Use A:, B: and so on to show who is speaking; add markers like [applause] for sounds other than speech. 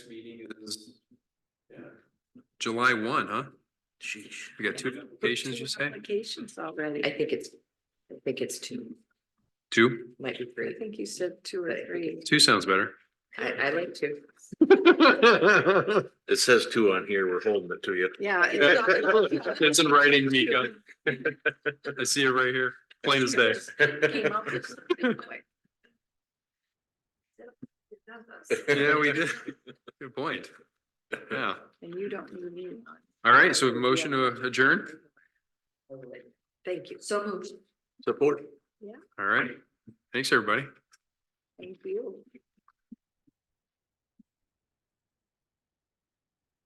A: July one, huh?
B: Sheesh.
A: We got two applications, you say?
C: Applications already.
B: I think it's, I think it's two,
A: Two?
B: might be
C: I
B: three.
C: think you said two or three.
A: Two sounds better.
B: I, I like two.
A: [laughs]
D: It says two on here, we're holding it to you.
C: Yeah. it's-
A: It's in writing, Mika. [laughs] I see it right here, [laughs] plain as
D: [laughs]
A: day.
C: Came up
A: [laughs]
C: with something quick. It does us,
A: Yeah, we did. Good point. Yeah.
C: And you don't need me. on.
A: All right, so we have a motion to adjourn.
C: Thank you. So moved.
D: Support.
A: All right. Thanks, everybody.
C: Thank you.